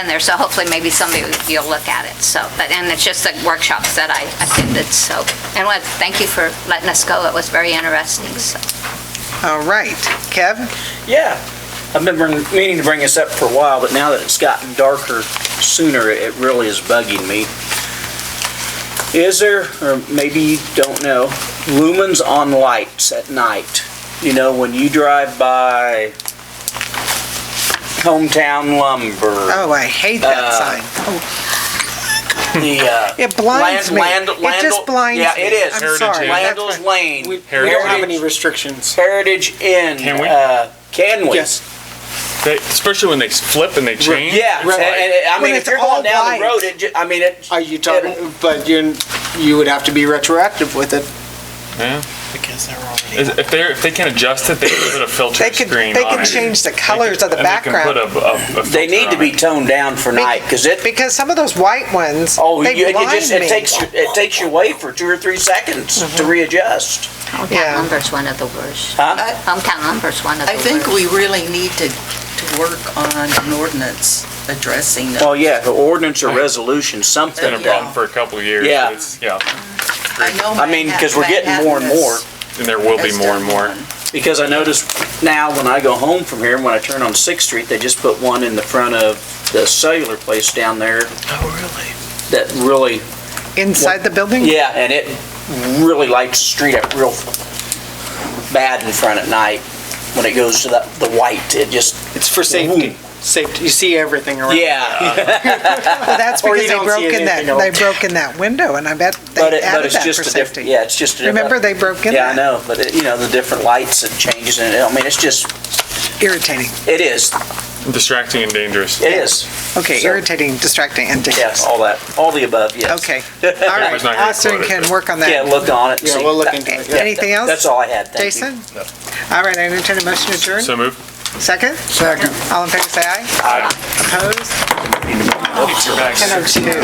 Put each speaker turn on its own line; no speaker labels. in there, so hopefully maybe somebody, you'll look at it, so, but, and it's just the workshops that I attended, so. And what, thank you for letting us go, it was very interesting, so.
All right, Kev?
Yeah. I've been bring- meaning to bring this up for a while, but now that it's gotten darker sooner, it really is bugging me. Is there, or maybe you don't know, lumens on lights at night? You know, when you drive by Hometown Lumber,
Oh, I hate that
Uh,
sign.
the, uh,
It blinds
Land-
me.
land-
It just
landl-
blinds me.
yeah, it is.
I'm sorry. That's
Landell's
what-
Lane.
We we don't have any restrictions.
Heritage Inn.
Can we?
uh, Can we?
Yes.
They, especially when they flip and they change.
Yeah,
Right.
and- and- I
When
mean, if
it's
you're
all
going down the
white.
road, it, ju- I mean, it.
Are you talking, but you, you would have to be retroactive with it.
Yeah.
Because they're already.
Is- If they if they can adjust it, they can put a filter
They could-
screen.
they
on
could
it.
change the
They
colors
could-
of the
and
background.
They, can put a, a, a
They
filter
need to
on
be
it.
toned down for night because it.
Because some of those white ones,
Oh, you,
they
it
blind
just it takes
me.
you, it takes you away for two or three seconds to readjust.
Yeah.
Hometown lumber's one of the worst.
Huh?
Hometown lumber's one of the
I
worst.
think we really need to, to work on an ordinance addressing that.
Well, Oh, yeah, the ordinance or resolution,
It's been a
something.
problem for a couple of years.
Yeah.
but It's, yeah.
I know
I mean, 'cause we're getting
Manhattan
more and more.
has-
And there will be
has
more and
done
more.
one.
Because I notice now when I go home from here, and when I turn on Sixth Street, they just put one in the front of the cellular place down there. Oh, really? That really
Inside the building?
Yeah, and it really lights the street up real bad in front at night when it goes to the, the white. It just,
It's for safety. Safety, you see everything around.
yeah.
Well, that's
Or you
because they
don't see
broke in
anything
that,
else.
they broke in that window, and I bet
But
they
it, but
added
it's
that for
just a different,
safety.
yeah, it's just a different.
Remember, they broke in
Yeah,
that?
I know, but it, you know, the different lights and changes and, I mean, it's just,
Irritating.
it is,
Distracting and dangerous.
it is,
Okay,
So-
irritating, distracting, and
yes,
dangerous.
all that, all the above, yes.
Okay, all right.
Everybody's not gonna
Austin
quote it,
can
but-
work on
Yeah,
that.
look on it.
Yeah,
see.
we'll look
That-
into it,
yeah,
yeah.
Anything else?
That's all I had, thank you.
Jason? All right, I entertain a motion to adjourn.
So move.
Second? Second. All in favor, say aye. Aye. Opposed?
Keep your back.
10:02.